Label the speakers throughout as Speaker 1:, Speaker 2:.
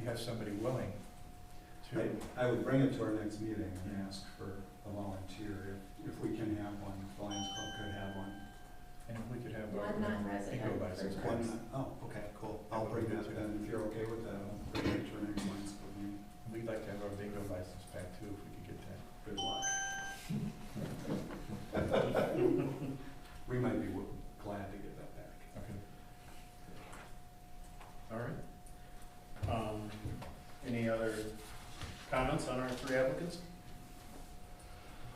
Speaker 1: you have somebody willing to,
Speaker 2: I, I would bring it to our next meeting and ask for a volunteer, if, if we can have one, if Lions Club could have one.
Speaker 1: and if we could have. our- um,
Speaker 3: One non-resident.
Speaker 1: Bingo license.
Speaker 3: for
Speaker 2: One,
Speaker 3: parks.
Speaker 2: oh, okay, cool, I'll bring that then, if you're okay with that, I'll bring it to our next Lions Club meeting.
Speaker 1: We'd like to have our bingo license back too, if we could get that.
Speaker 2: Good luck. We might be w- glad to get that back.
Speaker 1: Okay.
Speaker 4: All right. Um, Any other comments on our three applicants?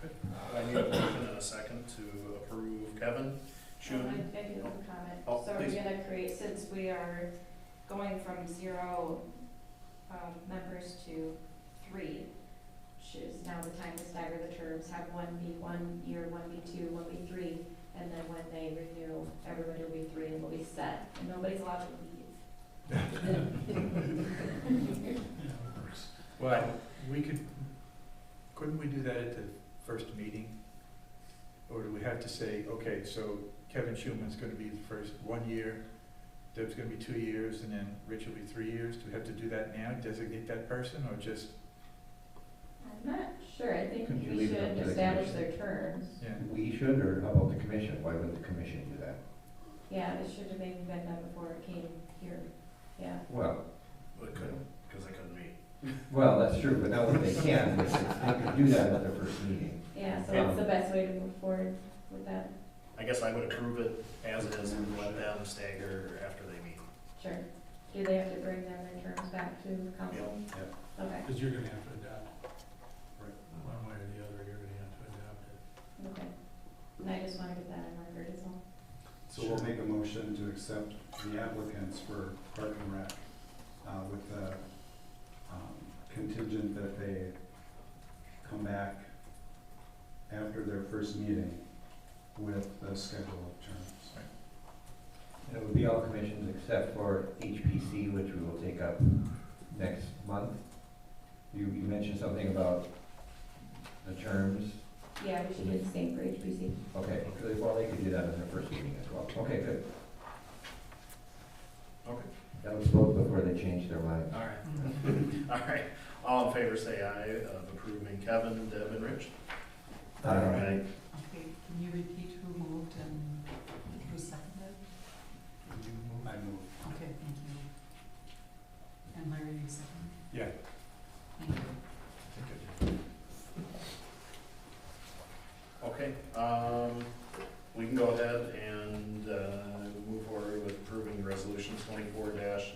Speaker 4: Okay. I need a motion and a second to approve Kevin
Speaker 3: Um,
Speaker 4: Shun.
Speaker 3: I I do have a comment.
Speaker 4: Oh,
Speaker 3: So we're
Speaker 4: please.
Speaker 3: gonna create, since we are going from zero, um, members to three, choose now the time to stagger the terms, have one be one year, one be two, one be three, and then when they renew, everybody will be three and will be set, and nobody's allowed to leave.
Speaker 1: Well, we could, couldn't we do that at the first meeting? Or do we have to say, okay, so Kevin Schuman's gonna be the first one year, Deb's gonna be two years, and then Rich will be three years? Do we have to do that now, designate that person, or just,
Speaker 3: I'm not sure, I think
Speaker 1: Couldn't
Speaker 5: you
Speaker 3: we
Speaker 5: leave it up
Speaker 3: should
Speaker 5: to the
Speaker 3: establish
Speaker 5: commission?
Speaker 3: their terms.
Speaker 1: yeah?
Speaker 5: We should, or how about the commission? Why would the commission do that?
Speaker 3: Yeah, it should have maybe been done before it came here, yeah.
Speaker 5: Well,
Speaker 4: But couldn't, because they couldn't meet.
Speaker 5: well, that's true, but now that they can, they could do that at their first meeting.
Speaker 3: Yeah, so that's the best way to move forward with that,
Speaker 4: I guess I would approve it as it is and let them stagger after they meet.
Speaker 3: sure. Do they have to bring them their terms back to council?
Speaker 4: Yep,
Speaker 3: Okay,
Speaker 2: Because you're gonna have to adopt,
Speaker 1: One way or the other, you're gonna have to adapt it.
Speaker 3: okay. And I just wanna get that on record as well.
Speaker 2: So we'll
Speaker 1: Sure.
Speaker 2: make a motion to accept the applicants for Park and Rec, uh, with the, um, contingent that they come back after their first meeting with the schedule of terms.
Speaker 5: And it would be all commissions except for HPC, which we will take up next month. You, you mentioned something about the terms.
Speaker 3: Yeah, we should do the same for HPC.
Speaker 5: Okay, good. well, they could do that at their first meeting as well. Okay, good.
Speaker 4: Okay.
Speaker 5: That was both before they changed their mind.
Speaker 4: All right. All right. All in favor, say aye of approving Kevin, Deb, and Rich.
Speaker 5: Um,
Speaker 6: Okay, can you repeat who moved and who seconded?
Speaker 1: Would you move?
Speaker 2: I move.
Speaker 6: Okay, thank you. And Larry, you seconded?
Speaker 1: Yeah.
Speaker 6: Thank you.
Speaker 4: Okay, um, we can go ahead and, uh, move forward with approving resolution twenty-four dash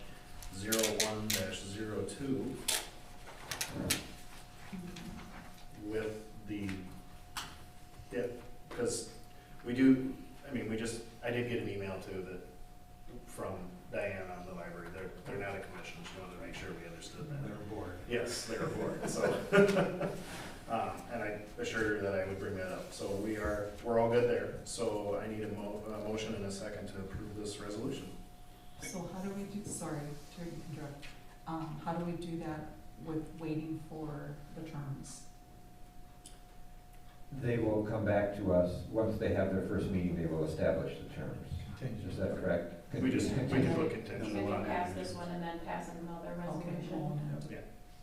Speaker 4: zero one dash zero two with the, yeah, because we do, I mean, we just, I did get an email too that, from Diane on the library, they're, they're not a commission, she wanted to make sure we understood that.
Speaker 2: They're bored.
Speaker 4: Yes, they were bored, so. Um, and I assured her that I would bring that up, so we are, we're all good there, so I need a mo- a motion and a second to approve this resolution.
Speaker 6: So how do we do, sorry to interrupt, um, how do we do that with waiting for the terms?
Speaker 5: They will come back to us, once they have their first meeting, they will establish the terms.
Speaker 1: Contingent.
Speaker 5: Is that correct?
Speaker 4: We just, we can put
Speaker 3: We
Speaker 4: contingent
Speaker 3: can
Speaker 4: on
Speaker 3: pass this
Speaker 4: it.
Speaker 3: one and then pass another
Speaker 6: Okay,
Speaker 3: resolution.
Speaker 6: hold on.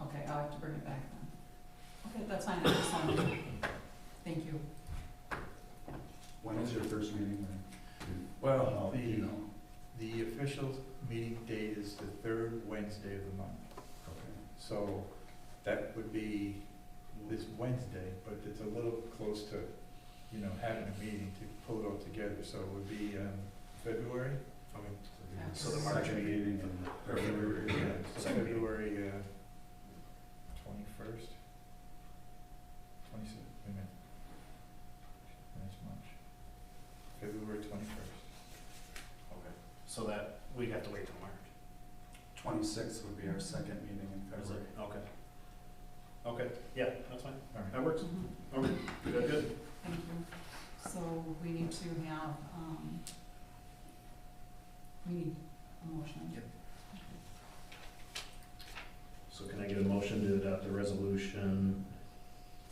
Speaker 6: Okay, I'll have to bring it back then. Okay, that's fine, I just wanted to- thank you.
Speaker 2: When is your first meeting? Lynn?
Speaker 1: Well,
Speaker 2: Do you
Speaker 1: Oh, the,
Speaker 2: know?
Speaker 1: the official meeting date is the third Wednesday of the month.
Speaker 2: Okay.
Speaker 1: So that would be this Wednesday, but it's a little close to, you know, having a meeting to pull it all together. So it would be um, February?
Speaker 6: So the
Speaker 4: March
Speaker 2: Second
Speaker 4: meeting.
Speaker 2: meeting in February.
Speaker 1: Yeah,
Speaker 2: yeah.
Speaker 1: so
Speaker 4: Second meeting.
Speaker 1: February uh, twenty-first? Twenty-six, wait a minute. That's March. February twenty-first.
Speaker 4: Okay. So that, we'd have to wait till March.
Speaker 2: Twenty-sixth would be our second meeting in
Speaker 4: Is
Speaker 2: February.
Speaker 4: it? Okay. Okay, yeah, that's fine,
Speaker 1: All right.
Speaker 4: that works,
Speaker 6: Mhm.
Speaker 4: okay, good, good.
Speaker 6: Thank you. So we need to have, um, we need a motion.
Speaker 4: Yep. So can I get a motion to adopt the resolution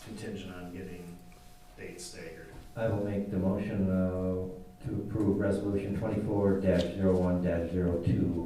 Speaker 4: contingent on getting dates staggered?
Speaker 5: I will make the motion uh, to approve resolution twenty-four dash zero one dash zero two